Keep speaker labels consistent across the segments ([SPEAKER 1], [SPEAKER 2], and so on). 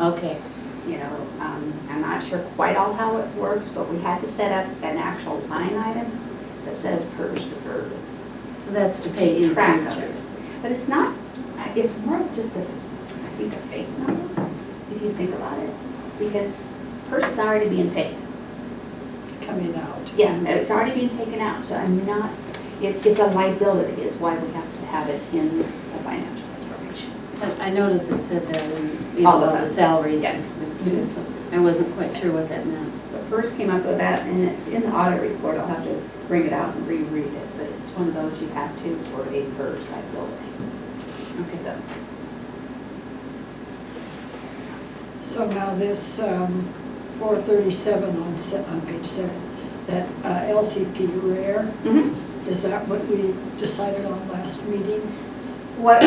[SPEAKER 1] Okay,
[SPEAKER 2] you know, um, I'm not sure quite all how it works, but we had to set up an actual line item that says PERS deferred.
[SPEAKER 1] so that's to pay in
[SPEAKER 2] Track of
[SPEAKER 1] future.
[SPEAKER 2] it. But it's not, I- it's more of just a, I think, a fake number, if you think about it, because PERS is already being paid.
[SPEAKER 3] coming out.
[SPEAKER 2] Yeah, no, it's already being taken out, so I'm not, it, it's a liability is why we have to have it in the financial information.
[SPEAKER 1] But I noticed it said that in, you
[SPEAKER 2] All
[SPEAKER 1] know,
[SPEAKER 2] of
[SPEAKER 1] the
[SPEAKER 2] us.
[SPEAKER 1] salaries
[SPEAKER 2] Yeah.
[SPEAKER 1] and students, so I wasn't quite sure what that meant.
[SPEAKER 2] But first came up with that, and it's in the audit report, I'll have to bring it out and reread it, but it's one of those you have to for a first liability.
[SPEAKER 1] Okay.
[SPEAKER 2] So,
[SPEAKER 3] So now this um, 437 on, se- on page seven, that uh, LCP rare, is that what we decided on last meeting?
[SPEAKER 2] What,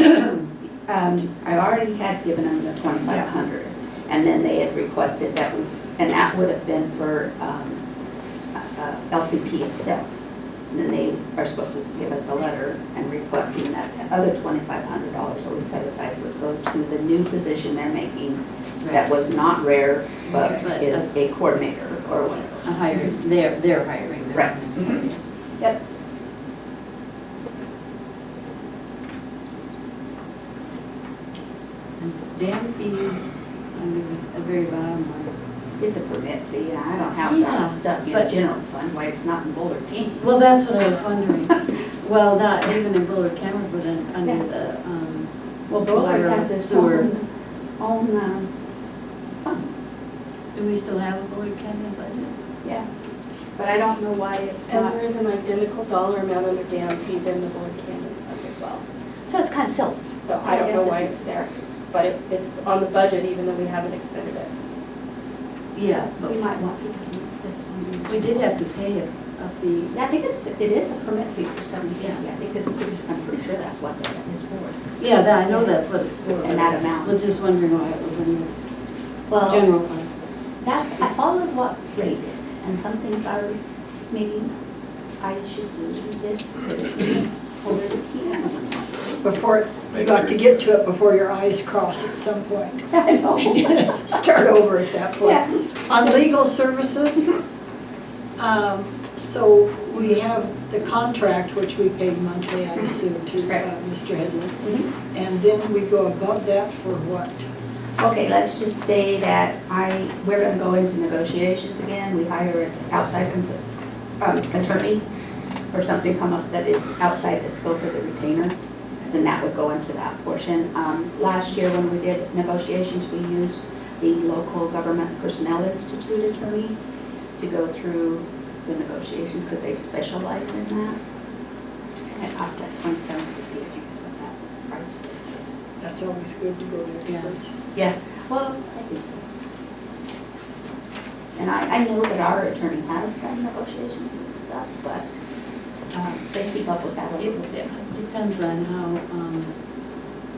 [SPEAKER 2] um, I already had given them the twenty-five hundred, and then they had requested that was, and that would have been for, um, uh, uh, LCP itself. And then they are supposed to give us a letter and requesting that the other twenty-five hundred dollars that we set aside would go to the new position they're making that was not rare, but
[SPEAKER 1] But, uh,
[SPEAKER 2] is a coordinator or whatever.
[SPEAKER 1] A hiring, they're, they're hiring. their
[SPEAKER 2] Mm-hmm. Right.
[SPEAKER 1] own.
[SPEAKER 2] Mhm. Yep. Mm-hmm.
[SPEAKER 1] And Dam fees, under the very bottom line.
[SPEAKER 2] It's a permit fee, and I don't have that
[SPEAKER 1] Yeah,
[SPEAKER 2] stuck in
[SPEAKER 1] but-
[SPEAKER 2] general fund, why it's not in Boulder County.
[SPEAKER 1] Well, that's what I was wondering. Well, not even in Bullard Cameron, but in, under the, um,
[SPEAKER 2] Well, Boulder
[SPEAKER 1] Water,
[SPEAKER 2] has its
[SPEAKER 1] sewer.
[SPEAKER 2] own, own, um, fund,
[SPEAKER 1] do we still have a Bullard Canyon budget?
[SPEAKER 2] yeah. But I don't know why it's
[SPEAKER 4] And
[SPEAKER 2] not,
[SPEAKER 4] there is an identical dollar amount under dam fees in the Board Canyon Fund as well.
[SPEAKER 2] so it's kind of silly.
[SPEAKER 4] So I don't know why it's there, but it- it's on the budget even though we haven't expended it.
[SPEAKER 1] Yeah,
[SPEAKER 2] But
[SPEAKER 1] but
[SPEAKER 2] we might want to keep this one.
[SPEAKER 1] we did have to pay a, a fee.
[SPEAKER 2] Yeah, I think it's, it is a permit fee for some, yeah, I think it's, pretty- I'm pretty sure that's what that is for,
[SPEAKER 1] Yeah, that, I know that's what it's for.
[SPEAKER 2] and that amount.
[SPEAKER 1] Was just wondering why it was in this
[SPEAKER 2] Well,
[SPEAKER 1] general fund.
[SPEAKER 2] that's, I followed what Ray did, and some things are, maybe I should do it, but it's older than he had.
[SPEAKER 3] Before, you got to get to it before your eyes cross at some point.
[SPEAKER 2] I know.
[SPEAKER 3] Start over at that point.
[SPEAKER 2] Yeah.
[SPEAKER 3] On legal services, um, so we have the contract, which we paid monthly, I assume, to uh,
[SPEAKER 2] Right.
[SPEAKER 3] Mr. Headley.
[SPEAKER 2] Mhm.
[SPEAKER 3] And then we go above that for what?
[SPEAKER 2] Okay, let's just say that I, we're gonna go into negotiations again, we hire an outside cons- um, attorney, or something come up that is outside the scope of the retainer, then that would go into that portion. Um, last year when we did negotiations, we used the local government personnel institute attorney to go through the negotiations, because they specialize in that. And it cost like twenty-seven fifty, I think is what that price was.
[SPEAKER 3] That's always good to go to experts.
[SPEAKER 2] Yeah, well, I think so. And I, I know that our attorney has done negotiations and stuff, but um, they keep up with that a little
[SPEAKER 1] It
[SPEAKER 2] bit.
[SPEAKER 1] depends on how um,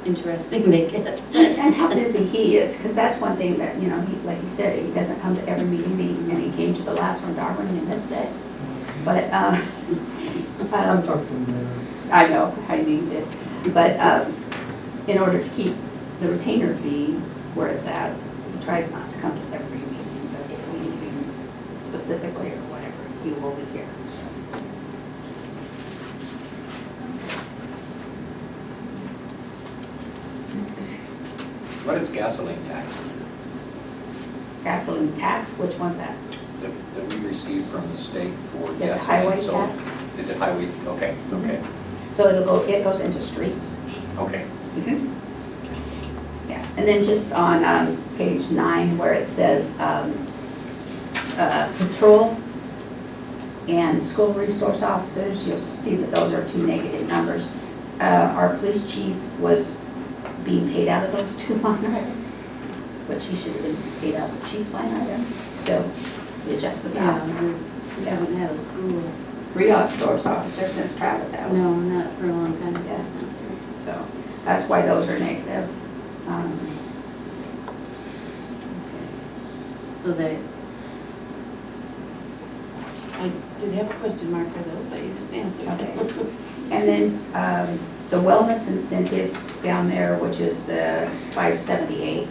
[SPEAKER 1] interesting they get.
[SPEAKER 2] And how busy he is, because that's one thing that, you know, he, like he said, he doesn't come to every meeting, meeting, and he came to the last one, Darwin, and missed it. But, um,
[SPEAKER 5] I
[SPEAKER 2] um,
[SPEAKER 5] talked to him there.
[SPEAKER 2] I know, I need it. But um, in order to keep the retainer fee where it's at, he tries not to come to every meeting, but if we need him specifically or whatever, he will be here, so.
[SPEAKER 6] What is gasoline tax
[SPEAKER 2] Gasoline tax, which one's that?
[SPEAKER 6] that that we receive from the state for gasoline?
[SPEAKER 2] It's highway
[SPEAKER 6] So-
[SPEAKER 2] tax.
[SPEAKER 6] Is it highway, okay, okay,
[SPEAKER 2] So it'll go, it goes into streets.
[SPEAKER 6] okay.
[SPEAKER 2] Yeah, and then just on um, page nine where it says um, uh, patrol and school resource officers, you'll see that those are two negative numbers. Uh, Our police chief was being paid out of those two line items, which he should have been paid out of the chief line item, so we adjusted
[SPEAKER 1] Yeah,
[SPEAKER 2] that.
[SPEAKER 1] we- we haven't had a school,
[SPEAKER 2] Resource officer since Travis out.
[SPEAKER 1] no, not for a long time.
[SPEAKER 2] Yeah. So that's why those are negative. Um,
[SPEAKER 1] So they, I did have a question mark for those, but you just answered.
[SPEAKER 2] Okay. And then um, the wellness incentive down there, which is the 578,